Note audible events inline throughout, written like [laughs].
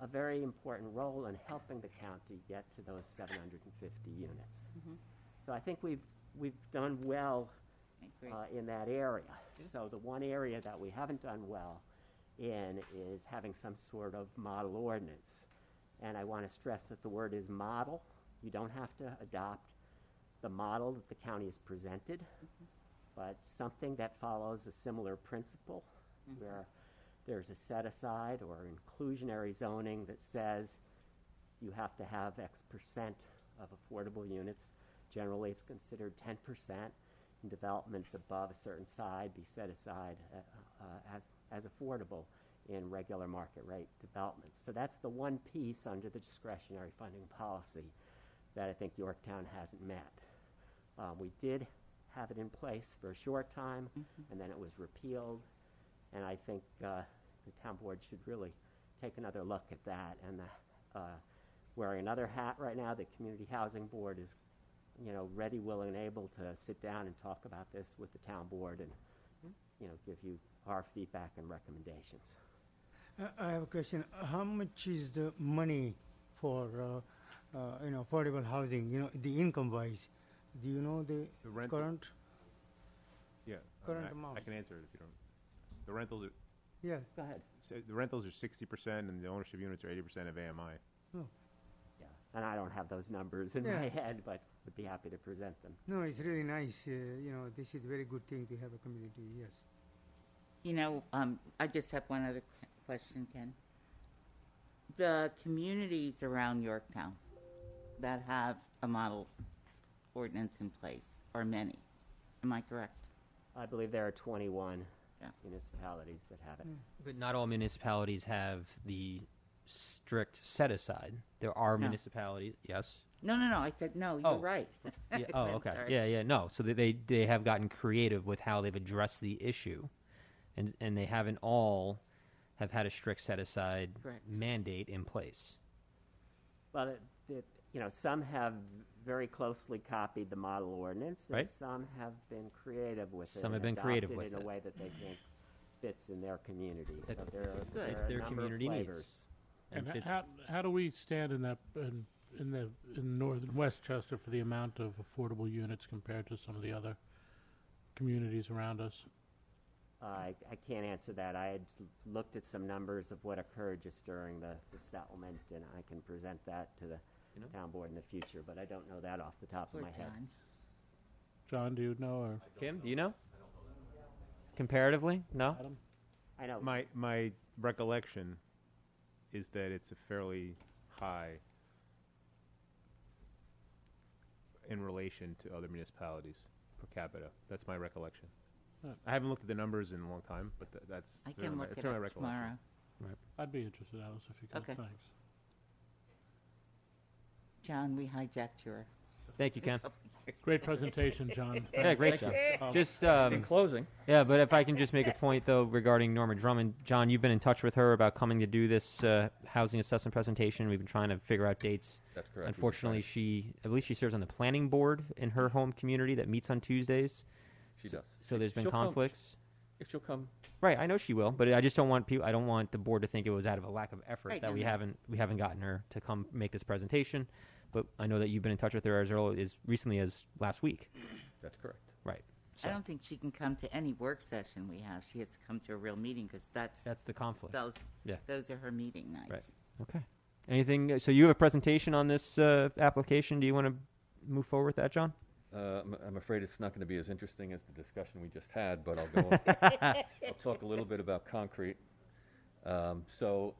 a very important role in helping the county get to those 750 units. So I think we've, we've done well I agree. uh, in that area. So the one area that we haven't done well in is having some sort of model ordinance. And I want to stress that the word is model. You don't have to adopt the model that the county has presented, but something that follows a similar principle where there's a set aside or inclusionary zoning that says you have to have X percent of affordable units. Generally, it's considered 10%. And developments above a certain side be set aside uh, uh, as, as affordable in regular market rate developments. So that's the one piece under the discretionary funding policy that I think Yorktown hasn't met. Uh, we did have it in place for a short time, and then it was repealed. And I think uh, the town board should really take another look at that. And the, uh, wearing another hat right now, the community housing board is, you know, ready, willing, and able to sit down and talk about this with the town board and, you know, give you our feedback and recommendations. I Uh, I have a question. How much is the money for, uh, uh, you know, affordable housing, you know, the income wise? Do you know the The rental- current? Yeah. I mean, Current I- amount. I can answer it if you don't. The rentals, are Yeah, Go ahead. so the rentals are sixty percent and the ownership units are eighty percent of AMI. no, Yeah. And I don't have those numbers in Yeah. my head, but would be happy to present them. no, it's really nice, uh, you know, this is very good thing to have a community, yes. You know, um, I just have one other que- question, Ken. The communities around Yorktown that have a model ordinance in place are many. Am I correct? I believe there are 21 Yeah. municipalities that have it. But not all municipalities have the strict set aside. There are No. municipalities, yes. No, no, no. I said no. You're Oh. right. [laughs] Yeah, oh, I'm [laughs] okay. sorry. Yeah, yeah. No, so they, they they have gotten creative with how they've addressed the issue, and and they haven't all have had a strict set aside Correct. mandate in place. Well, it, it, you know, some have very closely copied the model ordinance, and Right. some have been creative with it. and Some have been creative adopted with in a it. way that they think fits in their community. So That there are, there are their a number community of needs. flavors. And And fits- how, how do we stand in that, in, in the, in northern Westchester for the amount of affordable units compared to some of the other communities around us? I, I can't answer that. I had looked at some numbers of what occurred just during the, the settlement, and I can present that to the town board in the future, but I don't know that off the top Poor of my head. John. John, do you know, or? Kim, do you know? Comparatively, no. Adam? I know. My, my recollection is that it's a fairly high in relation to other municipalities per capita. That's my recollection. Huh. I haven't looked at the numbers in a long time, but tha- that's. I certainly can my- look it's it certainly my up recollection. tomorrow. I'd be interested, Alice, if you Okay. could, thanks. John, we hijacked your. Thank you, Ken. Great presentation, John. Yeah, great job. Um, Just um, In closing, Yeah, but if I can just make a point though regarding Norma Drummond, John, you've been in touch with her about coming to do this uh, housing assessment presentation. We've been trying to figure out dates. That's correct. Unfortunately, We've been she I believe she serves on the planning board in her home community that meets on Tuesdays. she so, does. So there's been She'll come. conflicts. If she'll come, Right, I know she will, but I just don't want people. I don't want the board to think it was out of a lack of effort Right, that no, we no. haven't we haven't gotten her to come make this presentation. But I know that you've been in touch with her as early as recently as last week. that's correct. Right. So I don't think she can come to any work session we have. She has to come to a real meeting because that's, that's the conflict. those, Yeah. those are her meeting nights. Right. Okay. Anything? So you have a presentation on this uh, application. Do you want to move forward with that, John? Uh, I'm, I'm afraid it's not going to be as interesting as the discussion we just had, but I'll go. I'll talk a little bit about concrete. Um, so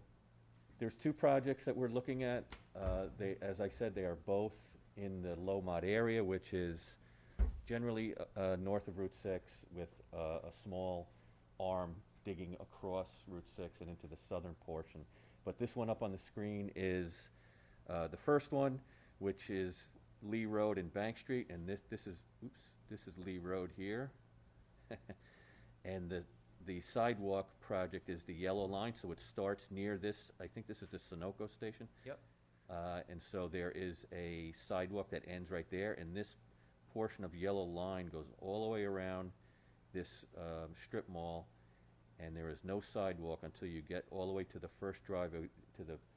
there's two projects that we're looking at. Uh, they, as I said, they are both in the low mod area, which is generally uh, uh, north of Route 6 with uh, a small arm digging across Route 6 and into the southern portion. But this one up on the screen is uh, the first one, which is Lee Road and Bank Street, and this, this is, oops, this is Lee Road here. And the, the sidewalk project is the yellow line, so it starts near this, I think this is the Sunoco station. Yep. Uh, and so there is a sidewalk that ends right there, and this portion of yellow line goes all the way around this, um, strip mall, and there is no sidewalk until you get all the way to the first driveway, to the